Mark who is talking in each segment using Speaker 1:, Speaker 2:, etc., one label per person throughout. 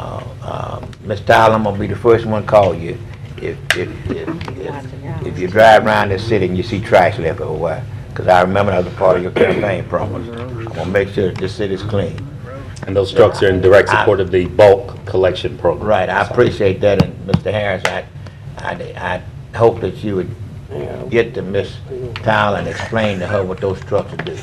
Speaker 1: Uh, Mr. Allen, um, I'm gonna be the first one to call you. If, if, if, if- if you drive around this city and you see trash left everywhere, because I remember that was a part of your campaign promise. I'm gonna make sure that this city's clean.
Speaker 2: And those trucks are in direct support of the bulk collection program.
Speaker 1: Right, I appreciate that, and Mr. Harris, I, I, I hope that you would get to Miss Tyler and explain to her what those trucks do.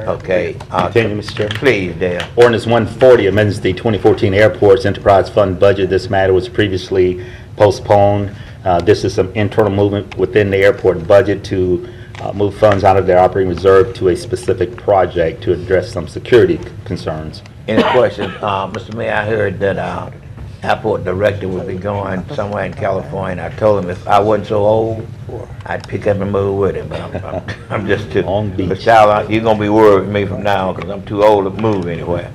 Speaker 1: Okay, uh,
Speaker 2: Continue, Mr. Chairman.
Speaker 1: please, Dale.
Speaker 2: Ordinance 140 amends the 2014 Airports Enterprise Fund budget. This matter was previously postponed. Uh, This is some internal movement within the airport budget to uh, move funds out of their operating reserve to a specific project to address some security concerns.
Speaker 1: Any questions? Uh, Mr. Mayor, I heard that, uh, airport director would be going somewhere in California. I told him if I wasn't so old, I'd pick up and move with him, but I'm, I'm, I'm just too.
Speaker 2: Long Beach.
Speaker 1: But Tyler, you're gonna be worried with me from now on, because I'm too old to move anywhere.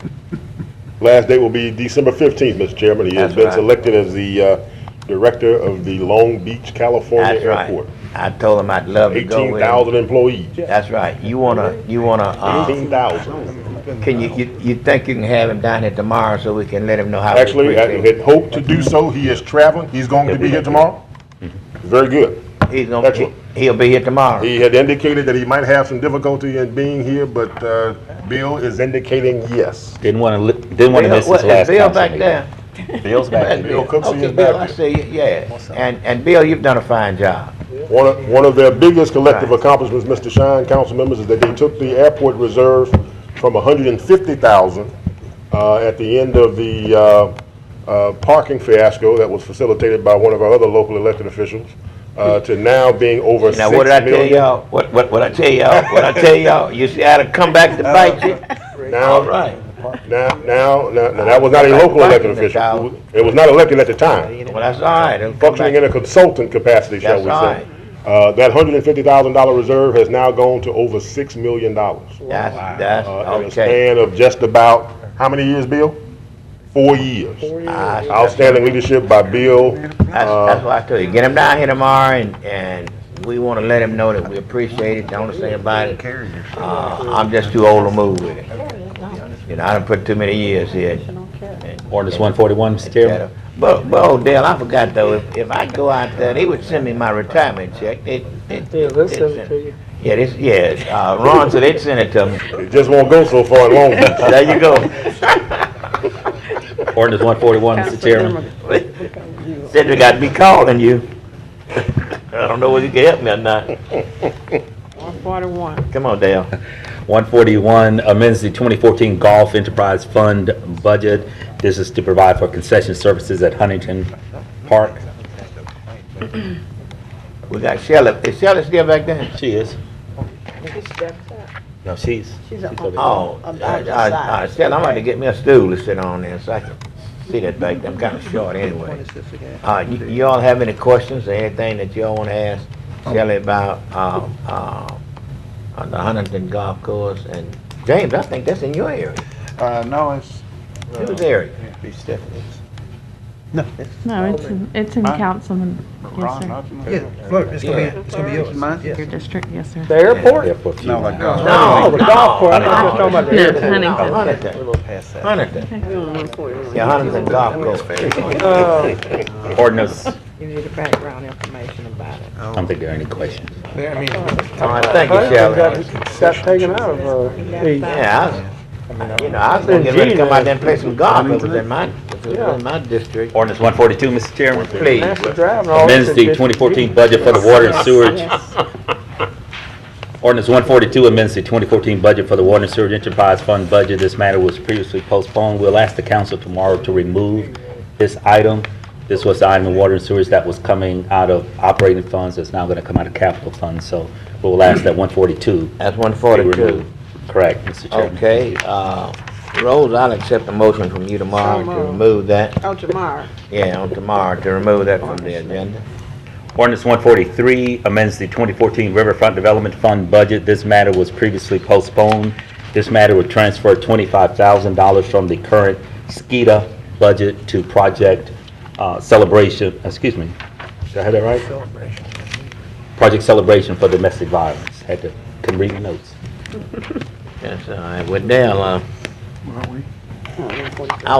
Speaker 3: Last day will be December 15th, Mr. Chairman. He
Speaker 1: That's
Speaker 3: has been
Speaker 1: right.
Speaker 3: selected as the uh, director of the Long Beach, California
Speaker 1: That's right.
Speaker 3: Airport.
Speaker 1: I told him I'd love to go with him.
Speaker 3: 18,000 employees.
Speaker 1: That's right. You wanna, you wanna, uh,
Speaker 3: 18,000.
Speaker 1: can you, you, you think you can have him down here tomorrow so we can let him know how we
Speaker 3: Actually, I
Speaker 1: appreciate
Speaker 3: had hoped to do so. He is traveling. He's going to be here tomorrow.
Speaker 1: Mm-hmm.
Speaker 3: Very good.
Speaker 1: He's gonna, he-
Speaker 3: actually-
Speaker 1: he'll be here tomorrow.
Speaker 3: He had indicated that he might have some difficulty in being here, but uh, Bill is indicating yes.
Speaker 2: Didn't want to, didn't want to
Speaker 1: Bill-
Speaker 2: miss his
Speaker 1: what- is
Speaker 2: last
Speaker 1: Bill
Speaker 2: council
Speaker 1: back
Speaker 2: meeting.
Speaker 1: there?
Speaker 2: Bill's back there.
Speaker 3: Bill Cooksey
Speaker 1: Okay,
Speaker 3: is
Speaker 1: Bill, I
Speaker 3: back here.
Speaker 1: see you, yeah. And, and Bill, you've done a fine job.
Speaker 3: One of, one of their biggest collective accomplishments, Mr. Shine, council members, is that they took the airport reserve from 150,000 uh, at the end of the uh, uh, parking fiasco that was facilitated by one of our other local elected officials uh, to now being over 6
Speaker 1: Hmm. Now, what did I tell
Speaker 3: million.
Speaker 1: y'all? What, what, what I tell y'all? What I tell y'all? You see how to come back to bite you?
Speaker 3: Now,
Speaker 1: All right.
Speaker 3: now, now, now- now, that was not a local elected official. It was not elected at the time.
Speaker 1: Well, that's all right. It'll come
Speaker 3: functioning
Speaker 1: back.
Speaker 3: in a consultant capacity, shall
Speaker 1: That's
Speaker 3: we
Speaker 1: right.
Speaker 3: say. Uh, That $150,000 reserve has now gone to over $6 million.
Speaker 1: That's, that's,
Speaker 3: uh, in a
Speaker 1: okay.
Speaker 3: span of just about, how many years, Bill? Four years.
Speaker 1: I see.
Speaker 3: Outstanding leadership by Bill.
Speaker 1: That's, Uh,
Speaker 3: Uh,
Speaker 1: that's what I tell you. Get him down here tomorrow and, and we wanna let him know that we appreciate it. Don't say about it. Uh, I'm just too old to move with it. You know, I done put too many years here.
Speaker 2: Ordinance 141, Mr. Chairman.
Speaker 1: But, but old Dale, I forgot though, if, if I go out there, they would send me my retirement check. They- they-
Speaker 4: Yeah, they'll send
Speaker 1: they'd
Speaker 4: it to you.
Speaker 1: Yeah, this, yeah, uh, Ron said they'd send it to me.
Speaker 3: It just won't go so far in Long Beach.
Speaker 1: There you go.
Speaker 2: Ordinance 141, Mr. Chairman.
Speaker 1: Said they gotta be calling you. I don't know whether you can help me or not.
Speaker 4: One forty-one.
Speaker 1: Come on, Dale.
Speaker 2: 141 amends the 2014 Golf Enterprise Fund budget. This is to provide for concession services at Huntington Park.
Speaker 1: We got Shelley. Is Shelley still back there?
Speaker 2: She is.
Speaker 4: She stepped up.
Speaker 2: No, she's.
Speaker 4: She's a-
Speaker 2: over there.
Speaker 1: Oh, uh,
Speaker 4: I'm
Speaker 1: uh, uh,
Speaker 4: outside.
Speaker 1: Shelley, I'm gonna get me a stool to sit on there so I can see that back there. I'm kinda short anyway. Uh, you, you all have any questions or anything that y'all wanna ask Shelley about, um, um, on the Huntington Golf Course? And James, I think that's in your area,
Speaker 5: Uh, no, it's.
Speaker 1: Whose area.
Speaker 5: Be Stephanie's.
Speaker 6: No, it's in, it's in
Speaker 5: Huh?
Speaker 6: Councilman, yes,
Speaker 5: Ron
Speaker 6: sir.
Speaker 5: Hudson.
Speaker 7: It's gonna be, it's gonna be yours.
Speaker 5: Mine?
Speaker 6: Your district, yes, sir.
Speaker 4: The airport?
Speaker 2: Yeah, for a few
Speaker 5: No,
Speaker 2: months.
Speaker 5: like, uh,
Speaker 1: No,
Speaker 4: The golf course, I'm just talking about the
Speaker 6: No,
Speaker 4: airport.
Speaker 1: No,
Speaker 6: Huntington.
Speaker 5: We're a
Speaker 1: Huntington,
Speaker 5: little past that.
Speaker 1: Huntington. Yeah, Huntington Golf Course.
Speaker 4: Uh,
Speaker 2: Ordinance,
Speaker 4: You need the background information about it.
Speaker 2: I don't think there are any questions.
Speaker 5: Yeah, I mean,
Speaker 1: All right, thank you,
Speaker 4: Huntington
Speaker 1: Shelley.
Speaker 4: got, got taken out of, uh, the-
Speaker 1: Yeah, I was, you know, I was gonna get ready to come out there and play some golf, it was in my, it was in my district.
Speaker 2: Ordinance 142, Mr. Chairman.
Speaker 1: Please,
Speaker 4: master drive and all.
Speaker 2: Amends
Speaker 4: that
Speaker 2: the
Speaker 4: shit.
Speaker 2: 2014 budget for the water and sewage. Ordinance 142 amends the 2014 budget for the water and sewage enterprise fund budget. This matter was previously postponed. We'll ask the council tomorrow to remove this item. This was the item in water and sewage that was coming out of operating funds. It's now going to come out of capital funds. So we'll ask that 142
Speaker 1: that's one
Speaker 2: be
Speaker 1: forty-two.
Speaker 2: removed. Correct, Mr. Chairman.
Speaker 1: Okay, uh, Rose, I'll accept a motion from you tomorrow to
Speaker 4: Tomorrow.
Speaker 1: remove that,
Speaker 4: Oh, tomorrow.
Speaker 1: yeah, on tomorrow, to remove that from the agenda.
Speaker 2: Ordinance 143 amends the 2014 Riverfront Development Fund budget. This matter was previously postponed. This matter would transfer $25,000 from the current SKIDA budget to Project uh, Celebration, excuse me, did I have that right? Project Celebration for Domestic Violence. Had to, couldn't read the notes.
Speaker 1: uh, That's all right, with Dale, uh,